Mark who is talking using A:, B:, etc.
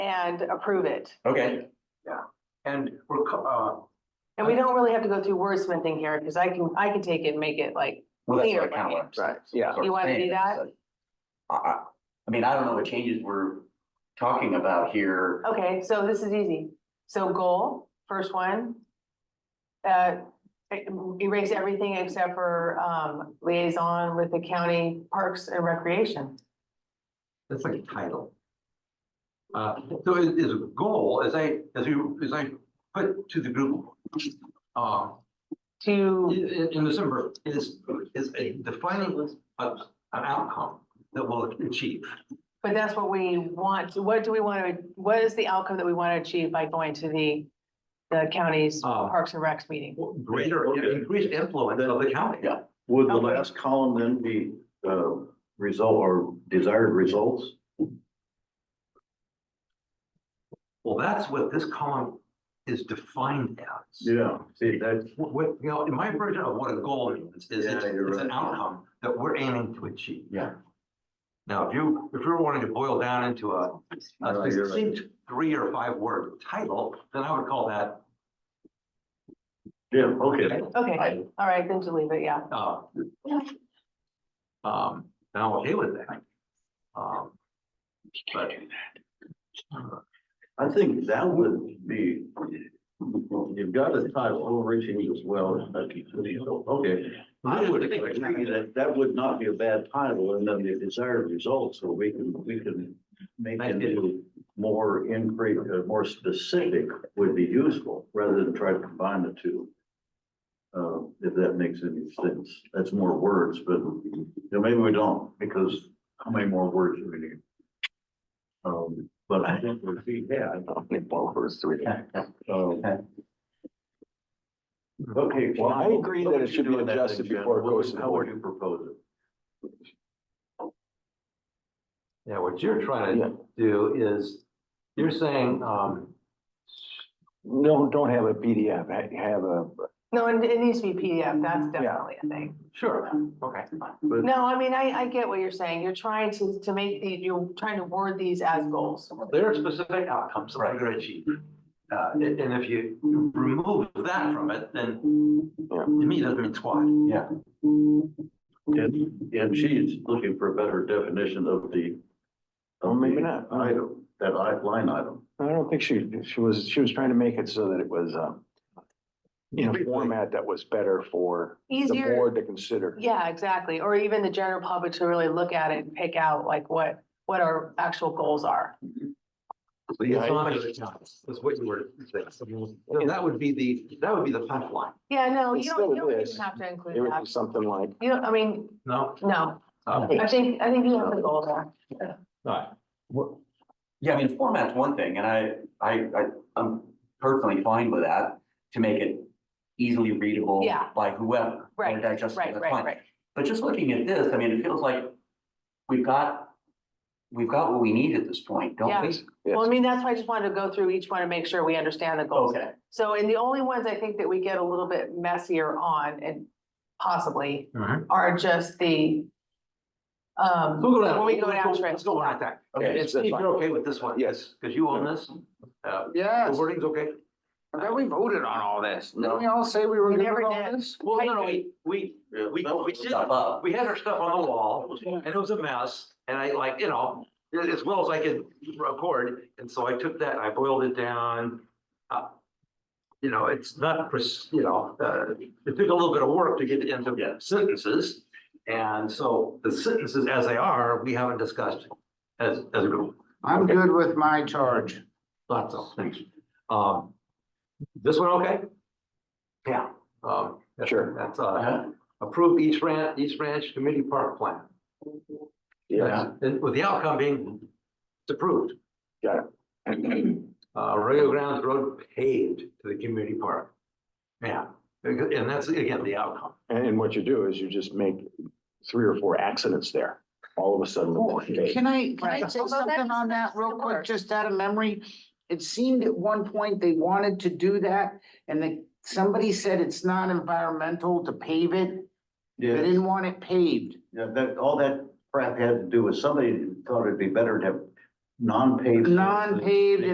A: and approve it.
B: Okay,
C: And we're, uh, co-
A: And we don't really have to go through wordsmithing here, because I can, I can take it and make it like,
B: well, that's
A: Clear,
B: what I kind of
A: right.
B: want. to
D: Right,
A: yeah. You wanna do
B: saying,
A: that?
B: so, I, I, I mean, I don't know what changes we're talking about here.
A: okay, so this is easy. So goal, first one. Uh, erase everything except for, um, liaison with the county parks and recreation.
C: that's like a title. Uh, so it is a goal, as I, as you, as I put to the group, uh,
A: To,
C: in, in- in December, is, is a defining of an outcome that we'll achieve.
A: but that's what we want, to- what do we want to, what is the outcome that we want to achieve by going to the, the county's
C: Uh,
A: Parks and Recs meeting?
C: Greater, increased influence of the county.
B: Yeah.
D: Would the
A: Okay.
D: last column then be, uh, result or desired results?
C: Well, that's what this column is defined as.
D: Yeah, see, that,
C: What, what- you know, in my version of what a goal means is it's,
D: Yeah, you're
C: it's an
D: right.
C: outcome that we're aiming to achieve.
B: Yeah.
C: Now, if you, if you're wanting to boil down into a,
D: No,
C: a
D: you're right.
C: succinct three or five word title, then I would call that,
D: yeah, okay.
A: Okay,
B: I-
A: all right, then just leave it, yeah.
C: uh, um, and I'm okay with that. Um, but,
D: I think that would be, you've got a title, overreaching as well. Okay. I would agree that that would not be a bad title and then the desired results, so we can, we can make it into more increase, uh, more specific would be useful rather than try to combine the two. Uh, if that makes any sense. That's more words, but you know, maybe we don't because how many more words do we need? Um, but I think we see, yeah, I don't think ballers three. Okay.
E: Well, I
D: Sean,
E: agree
D: what
E: that
D: would
E: it
D: you
E: should
D: do
E: be
D: in that
E: adjusted
D: then, Jen?
E: before it
D: What would-
E: goes to the
D: How would
E: board.
D: you propose it?
C: yeah, what you're trying
E: Yeah.
C: to do is, you're saying, um,
E: No, don't have a PDF, ha- have a,
A: No, and it needs to be PDF, that's definitely a thing.
C: sure, okay.
D: But-
A: No, I mean, I, I get what you're saying. You're trying to, to make these, you're trying to word these as
B: Mm.
A: goals.
C: There are specific outcomes that we're gonna achieve. Uh, and, and if you remove that from it, then to me, it doesn't mean squat.
B: Yeah.
D: And, and she's looking for a better definition of the.
E: Well,
D: of
E: maybe
D: the
E: not.
D: Item, that I- line item.
E: I don't think she, she was, she was trying to make it so that it was, um, in a format that was better for the
A: Easier,
E: board to consider.
A: yeah, exactly. Or even the general public to really look at it and pick out like what, what our actual goals are.
E: Yeah, I-
C: That's what you were saying. And that would be the, that would be the pipeline,
A: Yeah, no,
E: It's
A: you
E: still
A: don't, you don't
E: this.
A: even have to include
E: It would be
A: that.
E: something like,
A: You don't, I mean,
C: no?
A: no,
C: Uh,
A: I think, I think you have the goal there.
C: all
B: What- Yeah, I mean, format's one thing, and I, I, I, I'm personally fine with that, to make it easily readable
A: Yeah.
B: by whoever.
A: Right,
B: and digestible,
A: Right,
B: that's
A: right,
B: fine.
A: right.
B: But just looking at this, I mean, it feels like we've got, we've got what we need at this point, don't we?
A: Yeah. Well, I mean, that's why I just wanted to go through each one and make sure we understand the goals.
B: Okay,
A: So, and the only ones I think that we get a little bit messier on and possibly
B: Mm-hmm.
C: right.
A: are just the um,
C: We'll go down-
A: when we go
C: let's
A: down
C: Let's go on like that.
B: okay.
C: If if you're okay with this one.
E: Yes.
C: Because you own this, uh, the
F: Yes,
C: wording's okay?
F: I thought we voted on all this.
B: No.
F: Didn't we all say we were
A: We
F: good
A: never
F: with all
A: did.
F: this?
C: Well, no, no, we, we, uh, we, we did,
B: Stuff up.
C: we had our stuff on the wall, and it was a mess, and I like, you know, as well as I could record, and so I took that, and I boiled it down. Uh, You know, it's not, pres- you know, uh, it took a little bit of work to get into sentences, and so the sentences as they are, we haven't discussed as, as a group,
F: I'm good with my charge.
C: lots of things. Um, this one, okay? Yeah, um, that's-
E: Sure.
C: That's, uh,
B: Uh-huh.
C: approve each ranch, each ranch committee park plan.
B: Yeah.
C: And with the outcome being it's approved.
E: Got
C: Uh, Rio Grande Road paved to the community park. Yeah, and that's again, the outcome.
E: and, and what you do is you just make three or four accidents there, all of a sudden. the board goes,
F: Can I, can I
A: Right.
F: say
A: Well, that
F: something on
A: is-
F: that real
A: of
F: quick,
A: course.
F: just out of memory? It seemed at one point they wanted to do that and then somebody said it's not environmental to pave it. They
D: Yeah,
F: didn't want it paved.
D: yeah, that, all that crap had to do with somebody thought it'd be better to have non-paved.
F: non-paved